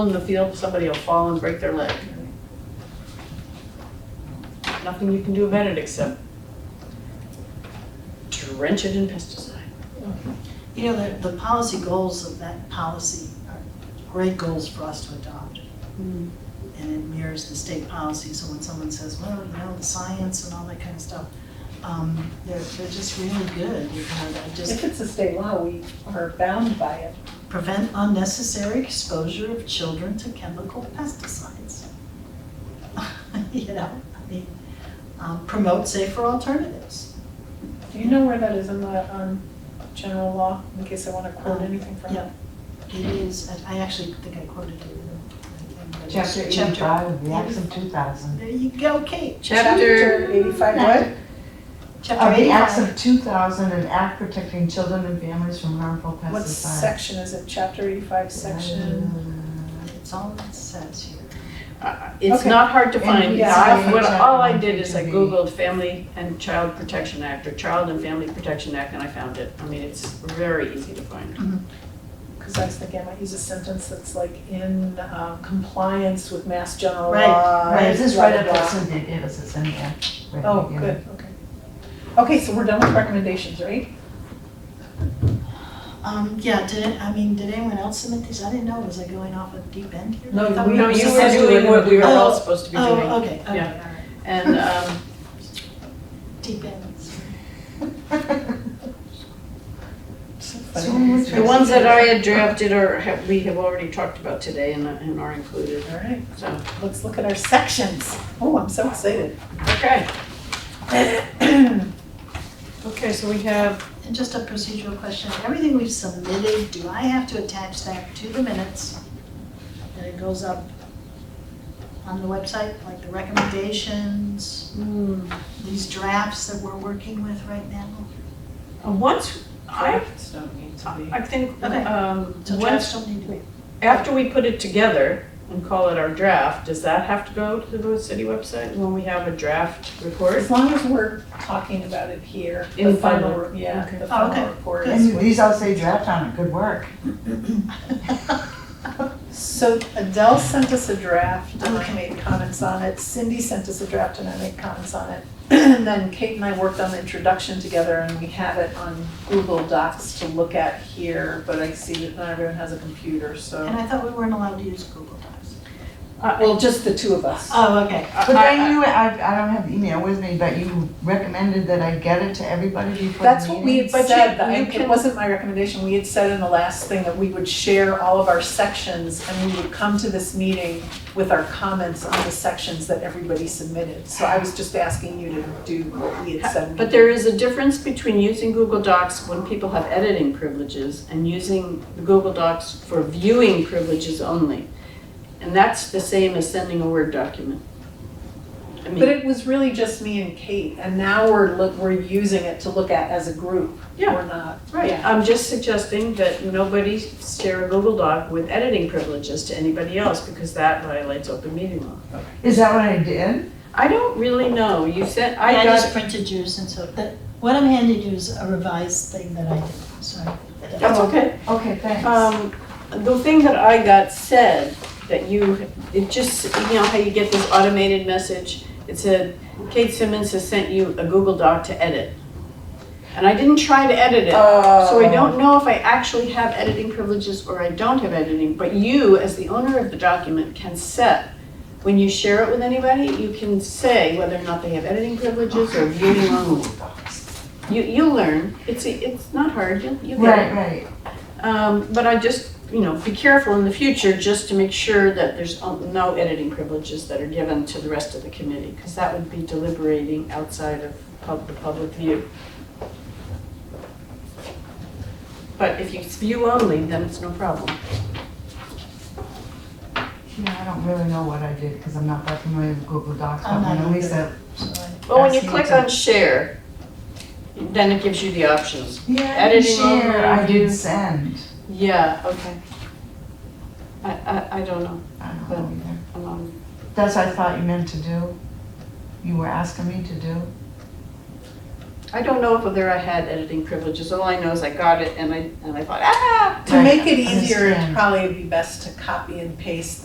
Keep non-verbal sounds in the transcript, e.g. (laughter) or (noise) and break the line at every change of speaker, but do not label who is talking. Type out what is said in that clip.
in the field, somebody will fall and break their leg. Nothing you can do about it except drench it in pesticide.
You know, the, the policy goals of that policy are great goals for us to adopt. And it mirrors the state policy, so when someone says, well, you know, the science and all that kind of stuff, um, they're, they're just really good, you know, that
If
just
it's a state law, we are bound by it.
prevent unnecessary exposure of children to chemical pesticides. (laughs) You know, I mean, um, promote safer alternatives.
Do you know where that is in the, um, general law, in case I wanna
Um,
quote anything from
Yeah.
it?
It is, I- I actually think I quoted it. in the- in the-
Chapter eighty-five of the Acts of two thousand.
There you go, Kate.
Chapter eighty-five, what?
Chapter
Of the Acts
85.
of two thousand, an act protecting children and families from harmful pesticides.
What section is it, chapter eighty-five, section?
It's all it says here.
Uh, It's
Okay.
not hard to
And
find.
yeah,
It's
I-
not- what- All I did is I
HIV.
Googled Family and Child Protection Act or Child and Family Protection Act and I found it. I mean, it's very easy to find.
Cause I was thinking, I might use a sentence that's like in, um, compliance with mass general
Right,
law.
Right, Uh, is this right up
blah, blah,
what Cynthia gave us, it's in the act. right
blah. Oh,
here. (laughs)
good, okay. Okay, so we're done with recommendations, right?
Um, yeah, did, it- I mean, did anyone else submit these? I didn't know, was I going off a deep end here?
No,
I thought
we-
Um, No,
were
you were
supposed to-
doing what we were all
Oh,
supposed to be doing.
Oh, okay, okay, all
Yeah.
right,
And, um,
deep ends.
So much
The ones that I had drafted are, have- we have already talked about today and and are included,
All right,
so,
let's look at our sections. Oh, I'm so excited.
okay. (clears throat) Okay, so we have,
And just a procedural question, everything we've submitted, do I have to attach that to the minutes? And it goes up on the website, like the recommendations,
mm,
these drafts that we're working with right now?
uh, once, I,
Drafts don't need to be.
I think,
Okay.
um,
So drafts
once,
don't need to be.
after we put it together and call it our draft, does that have to go to the city website when we have a draft report?
As long as we're talking about it here, the
In
final,
final.
re- yeah,
Okay.
the
Oh, okay.
final report
Good.
is
And
what.
these all say draft on it, good work.
So Adele sent us a draft and I
Okay.
made comments on it. Cindy sent us a draft and I made comments on it. (clears throat) And then Kate and I worked on the introduction together and we have it on Google Docs to look at here, but I see that not everyone has a computer,
And
so.
I thought we weren't allowed to use Google Docs.
Uh,
Well, just the two of us.
Oh, okay.
But then you, I, I don't have the email with me, but you recommended that I get it to everybody before the meeting?
That's what we had
But you-
said, that I-
you
it
can-
wasn't my recommendation, we had said in the last thing that we would share all of our sections and we would come to this meeting with our comments on the sections that everybody submitted. So I was just asking you to do what we had said. we
But there is a difference between using Google Docs when people have editing privileges and using the Google Docs for viewing privileges only. And that's the same as sending a Word document. I
But
mean,
it was really just me and Kate, and now we're look, we're using it to look at as a group.
Yeah.
We're not.
right, I'm just suggesting that nobody share a Google Doc with editing privileges to anybody else because that violates open meeting law.
Is that what I did?
I don't really know, you said,
Yeah,
I
I just
got,
printed yours and so, that, what I'm handing you is a revised thing that I did, sorry. Oh,
that's okay.
Okay, thanks.
Um, the thing that I got said, that you, it just, you know how you get this automated message? It said, Kate Simmons has sent you a Google Doc to edit. And I didn't try to edit it, so I don't know if I actually have editing privileges or I don't have editing, but you, as the owner of the document, can set, when you share it with anybody, you can say whether or not they have editing privileges or viewing only. You, you'll learn, it's, it's not hard, you'll, you'll get it.
Right, right.
Um, but I just, you know, be careful in the future just to make sure that there's um, no editing privileges that are given to the rest of the committee, because that would be deliberating outside of pub, the public view. But if it's view only, then it's no problem.
Yeah, I don't really know what I did because I'm not that familiar with Google Docs, but
I'm
when
not
Elisa.
So I-
But when you
That's
click
the-
on share, then it gives you the options.
Yeah, I did
Editing
share, I
overview.
did send.
Yeah, okay. I, I, I don't know, Um,
I don't know either.
I'm on-
That's what I thought you meant to do. You were asking me to do.
I don't know if there I had editing privileges, all I know is I got it and I, and I thought, ah!
To make it easier,
understand.
it'd probably be best to copy and paste